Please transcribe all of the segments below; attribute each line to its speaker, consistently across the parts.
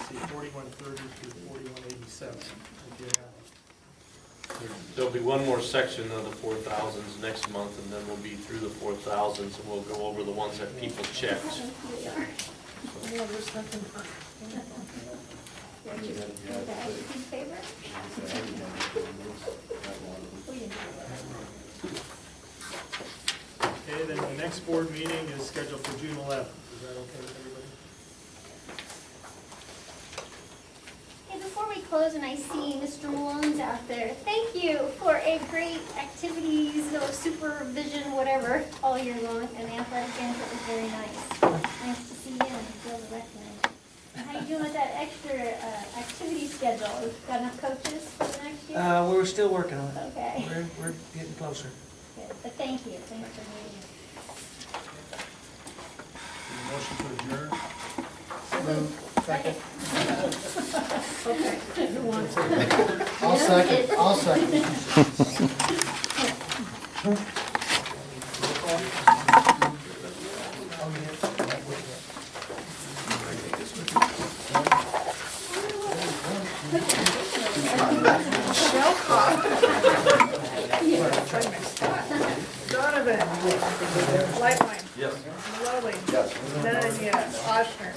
Speaker 1: forty-one thirty through forty-one eighty-seven. if you have.
Speaker 2: There'll be one more section of the four thousands next month, and then we'll be through the four thousands, and we'll go over the ones that people checked.
Speaker 3: In favor?
Speaker 1: Okay, then the next board meeting is scheduled for June eleventh. Is that okay with everybody?
Speaker 3: Hey, before we close, and I see Mr. Mullins out there, thank you for a great activities or supervision, whatever, all year long, and the athletic end, it was very nice. Nice to see you and feel the recommend. And How you doing with that extra uh, activity schedule? Got enough coaches for the next year?
Speaker 4: Uh, we're still working on it.
Speaker 3: Okay,
Speaker 4: We're, we're getting closer.
Speaker 3: good, but thank you, thanks for meeting.
Speaker 1: Motion to adjourn?
Speaker 3: Second.
Speaker 5: I'll second, I'll second.
Speaker 6: Donovan. Lightline. Yes. Lovely. Yes. Nunn, yes. Ochsner.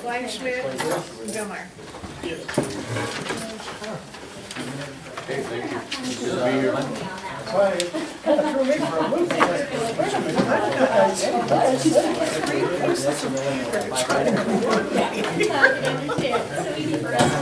Speaker 6: Kleinschmidt. Gilmar.
Speaker 3: So we need for us.